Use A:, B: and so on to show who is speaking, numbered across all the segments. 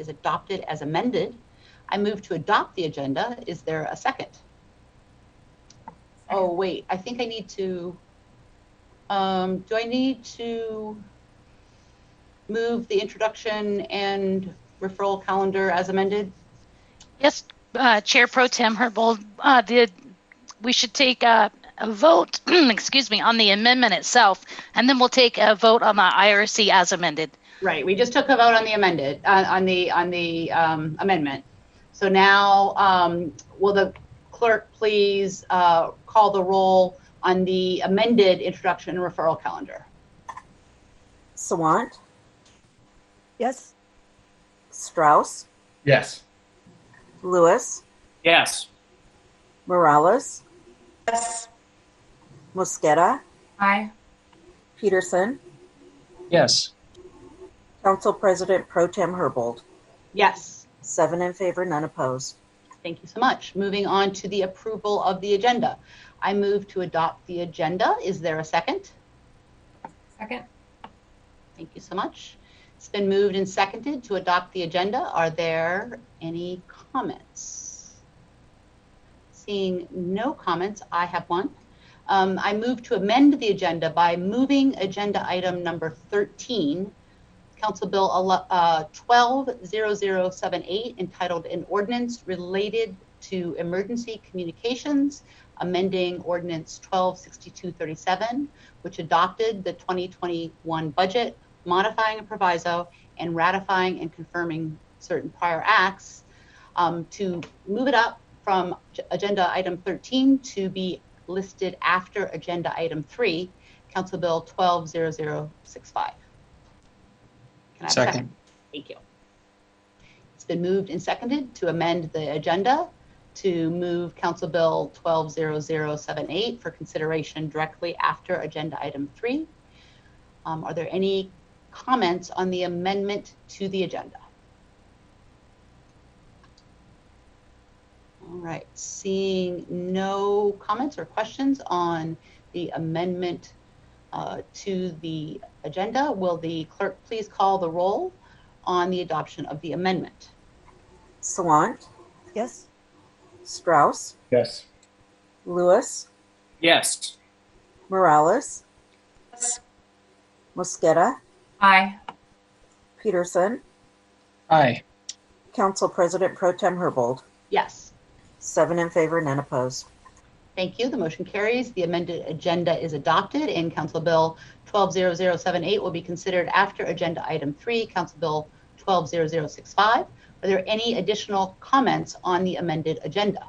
A: is adopted as amended. I move to adopt the agenda. Is there a second? Oh, wait, I think I need to, um, do I need to move the introduction and referral calendar as amended?
B: Yes, uh, Chair Pro Tem Herbold, uh, the, we should take a, a vote, excuse me, on the amendment itself, and then we'll take a vote on the IRC as amended.
A: Right, we just took a vote on the amended, on, on the, on the um, amendment. So now, um, will the clerk please uh, call the roll on the amended introduction and referral calendar?
C: Sawant,
D: Yes.
C: Strauss,
E: Yes.
C: Lewis,
F: Yes.
C: Morales,
G: Yes.
C: Mosqueda,
G: Aye.
C: Peterson,
F: Yes.
C: Council President Pro Tem Herbold.
A: Yes,
C: Seven in favor, none opposed.
A: thank you so much. Moving on to the approval of the agenda. I move to adopt the agenda. Is there a second?
G: Second?
A: Thank you so much. It's been moved and seconded to adopt the agenda. Are there any comments? Seeing no comments, I have one. Um, I move to amend the agenda by moving agenda item number 13, Council Bill ele- uh, 120078, entitled An Ordinance Related to Emergency Communications, amending Ordinance 126237, which adopted the 2021 budget, modifying a proviso, and ratifying and confirming certain prior acts, um, to move it up from ag- agenda item 13 to be listed after agenda item 3, Council Bill 120065. Can I have a
F: Second.
A: Thank you. It's been moved and seconded to amend the agenda to move Council Bill 120078 for consideration directly after Agenda Item 3. Um, Are there any comments on the amendment to the agenda? All right, seeing no comments or questions on the amendment uh, to the agenda, will the clerk please call the roll on the adoption of the amendment?
C: Sawant,
D: Yes.
C: Strauss,
E: Yes.
C: Lewis,
F: Yes.
C: Morales,
G: Yes.
C: Mosqueda,
G: Aye.
C: Peterson,
F: Aye.
C: Council President Pro Tem Herbold.
A: Yes.
C: Seven in favor, none opposed.
A: Thank you. The motion carries. The amended agenda is adopted and Council Bill 120078 will be considered after Agenda Item 3, Council Bill 120065. Are there any additional comments on the amended agenda?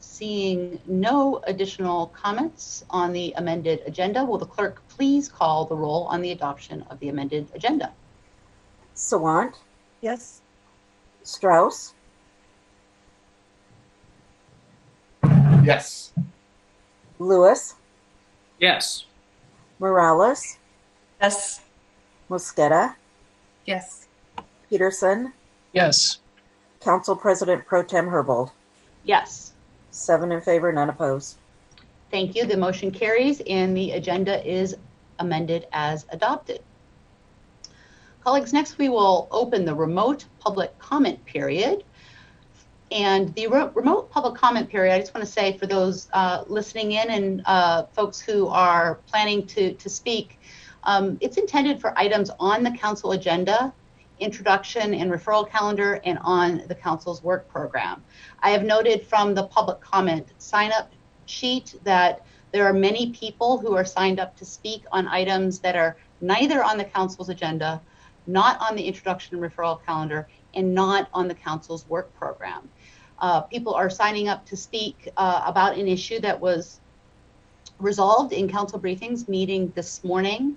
A: Seeing no additional comments on the amended agenda, will the clerk please call the roll on the adoption of the amended agenda?
C: Sawant,
D: Yes.
C: Strauss,
E: Yes.
C: Lewis,
F: Yes.
C: Morales,
G: Yes.
C: Mosqueda,
G: Yes.
C: Peterson,
F: Yes.
C: Council President Pro Tem Herbold.
A: Yes.
C: Seven in favor, none opposed.
A: Thank you. The motion carries and the agenda is amended as adopted. Colleagues, next we will open the remote public comment period. And the re- remote public comment period, I just want to say for those uh, listening in and uh, folks who are planning to, to speak, um, it's intended for items on the council agenda, introduction and referral calendar, and on the council's work program. I have noted from the public comment sign up sheet that there are many people who are signed up to speak on items that are neither on the council's agenda, not on the introduction and referral calendar, and not on the council's work program. Uh, people are signing up to speak uh, about an issue that was resolved in council briefings meeting this morning.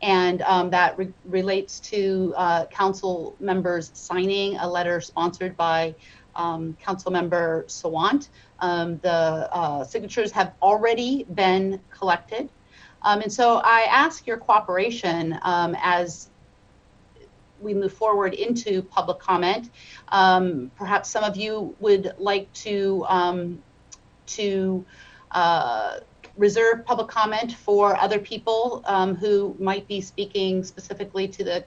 A: And um, that re- relates to uh, council members signing a letter sponsored by um, council member Sawant um, the uh, signatures have already been collected. Um, and so I ask your cooperation um, as we move forward into public comment. Um, perhaps some of you would like to um, to uh, reserve public comment for other people um, who might be speaking specifically to the